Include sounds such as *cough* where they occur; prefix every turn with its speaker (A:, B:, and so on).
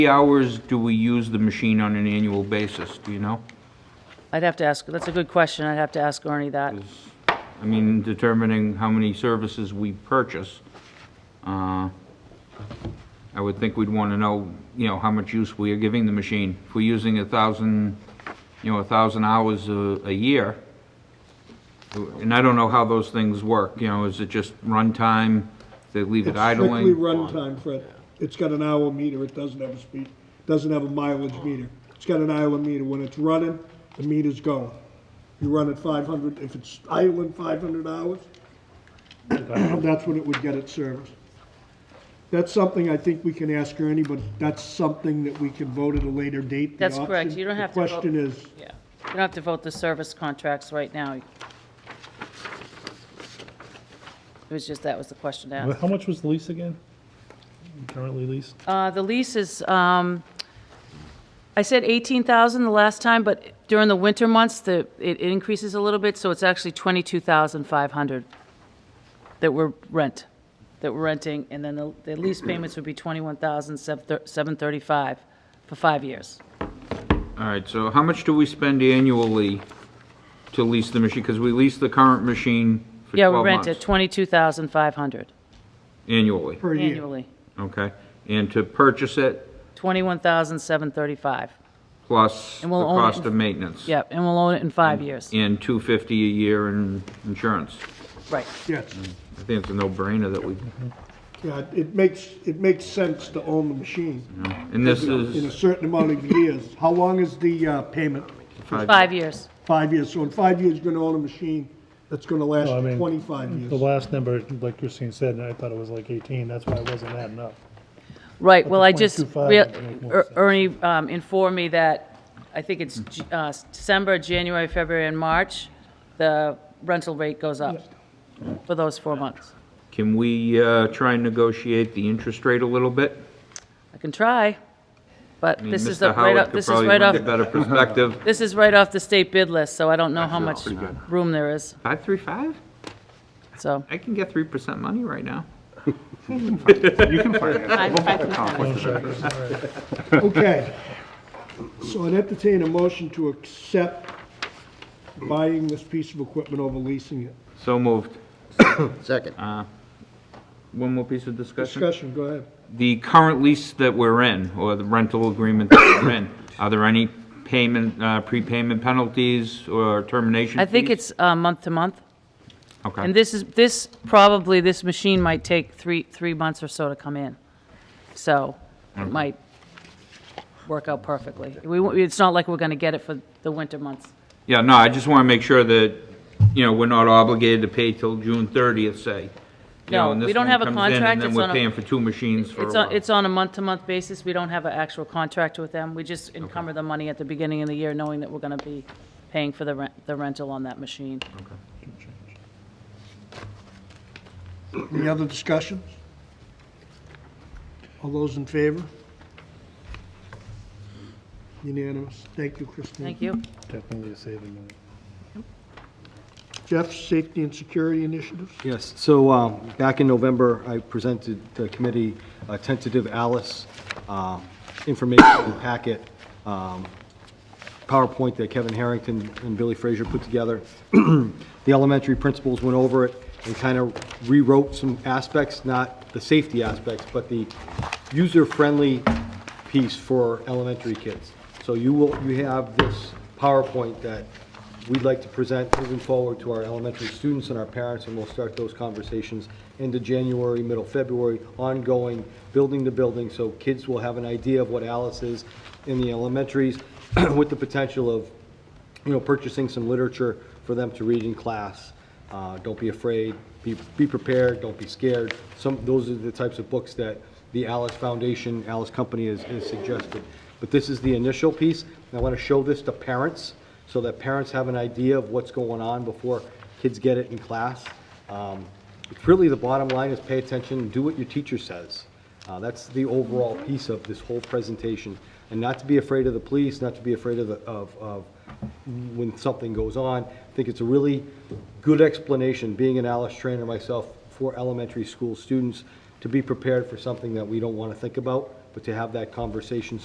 A: many hours do we use the machine on an annual basis, do you know?
B: I'd have to ask, that's a good question, I'd have to ask Ernie
A: Mm.
B: that.
A: I mean, determining how many services we purchase, uh, I would think we'd want to know, you know, how much use we are giving the machine. If we're using a thousand, you know, a thousand hours a, a year, and I don't know how those things work, you know, is it just runtime, they leave it idling?
C: Strictly runtime, Fred. It's got an hour meter, it doesn't have a speed, doesn't have a mileage meter. It's got an hour meter, when it's running, the meter's going. You run it five hundred, if it's idling five hundred hours, *coughs* that's when it would get its service. That's something I think we can ask Ernie, but that's something that we can vote at a later date. the
B: That's correct.
C: option.
B: You don't
C: The
B: have to vote-
C: question is,
B: Yeah. You don't have to vote the service contracts right now. It was just, that was the question to
A: *laughs*
B: ask.
D: How much was the lease again? Currently leased?
B: Uh, The lease is, um, I said 18,000 the last time, but during the winter months, the, it it increases a little bit, so it's actually 22,500 that we're rent, that we're renting, and then the- the lease payments would be 21,735 for five years.
A: All right, so how much do we spend annually to lease the machine? Because we lease the current machine for
B: Yeah,
A: 12
B: we
A: months.
B: rent it 22,500
A: Annually,
C: per year.
B: annually,
A: okay? And to purchase it
B: 21,735.
A: plus the
B: And we'll own it
A: cost
B: in-
A: of maintenance?
B: Yep, and we'll own it in five years.
A: And 250 a year in insurance?
B: Right.
C: Yes,
A: I think it's a no-brainer that we,
C: yeah, it makes, it makes sense to own the machine.
A: and this
C: in a
A: is
C: certain amount of years. How long is the uh, payment?
A: five,
B: Five years.
C: Five years. So in five years, you're gonna own a machine that's gonna last
D: No, I mean,
C: twenty-five
D: The
C: years.
D: last number, like Christine said, and I thought it was like 18, that's why it wasn't adding up.
B: Right, well, I
D: the
B: just,
D: 0.25
B: rea-
D: would make more
B: Er-
D: sense.
B: Ernie um, informed me that, I think it's J- uh, s- December, January, February, and March, the rental rate goes up for those four months.
A: can we uh, try and negotiate the interest rate a little bit?
B: I can try, but
A: I mean,
B: this is, the-
A: Mr.
B: right
A: Howard
B: off-
A: could
B: this is
A: probably
B: right
A: lend
B: off,
A: a better perspective.
B: this is right off the state bid list, so I don't know how much room there is,
A: 535?
B: so.
A: I can get 3% money right now.
E: You can finance it. Conflict of interest.
C: Okay. So I'd entertain a motion to accept buying this piece of equipment over leasing it.
A: So moved. Uh,
F: Second.
A: One more piece of discussion?
C: Discussion, go ahead.
A: the current lease that we're in, or the rental agreement that we're in, *coughs* are there any payment, uh, prepayment penalties or termination
B: I think
A: fees?
B: it's uh, month to month, and
A: Okay,
B: this is, this, probably, this machine might take three, three months or so to come in. So it might work out perfectly. We, won't- it's not like we're going to get it for the winter months.
A: yeah, no, I just want to make sure that, you know, we're not obligated to pay till June 30th, say. You know,
B: No,
A: and
B: we
A: this
B: don't
A: one
B: have a
A: comes in,
B: contract,
A: And then
B: it's on
A: we're
B: a-
A: paying for two machines for a
B: It's on,
A: while.
B: it's on a month-to-month basis. We don't have an actual contract with them. We just encumber the money at the beginning of the year, knowing that we're going to be paying for the rent, the rental on that machine.
C: Any other discussions? All those in favor? Unanimous. Thank you, Christine.
B: Thank you.
D: Definitely a saving. uh,
C: Jeff, safety and security initiatives?
G: Yes, so um, back in November, I presented the committee a tentative Alice um, information packet, um, PowerPoint that Kevin Harrington and Billy Frazier put together. *clears throat* The elementary principals went over it and kind of rewrote some aspects, not the safety aspects, but the user-friendly piece for elementary kids. So you will, you have this PowerPoint that we'd like to present moving forward to our elementary students and our parents, and we'll start those conversations into January, middle February, ongoing, building to building, so kids will have an idea of what Alice is in the elementaries, *clears throat* with the potential of you know, purchasing some literature for them to read in class. Uh, Don't be afraid, be, be prepared, don't be scared. Some, those are the types of books that the Alice Foundation, Alice Company has has suggested. But this is the initial piece, and I want to show this to parents, so that parents have an idea of what's going on before kids get it in class. Um, Really, the bottom line is pay attention, do what your teacher says. Uh, That's the overall piece of this whole presentation. And not to be afraid of the police, not to be afraid of, the- of, of when something goes on. I think it's a really good explanation, being an Alice trainer myself, for elementary school students to be prepared for something that we don't want to think about, but to have that conversation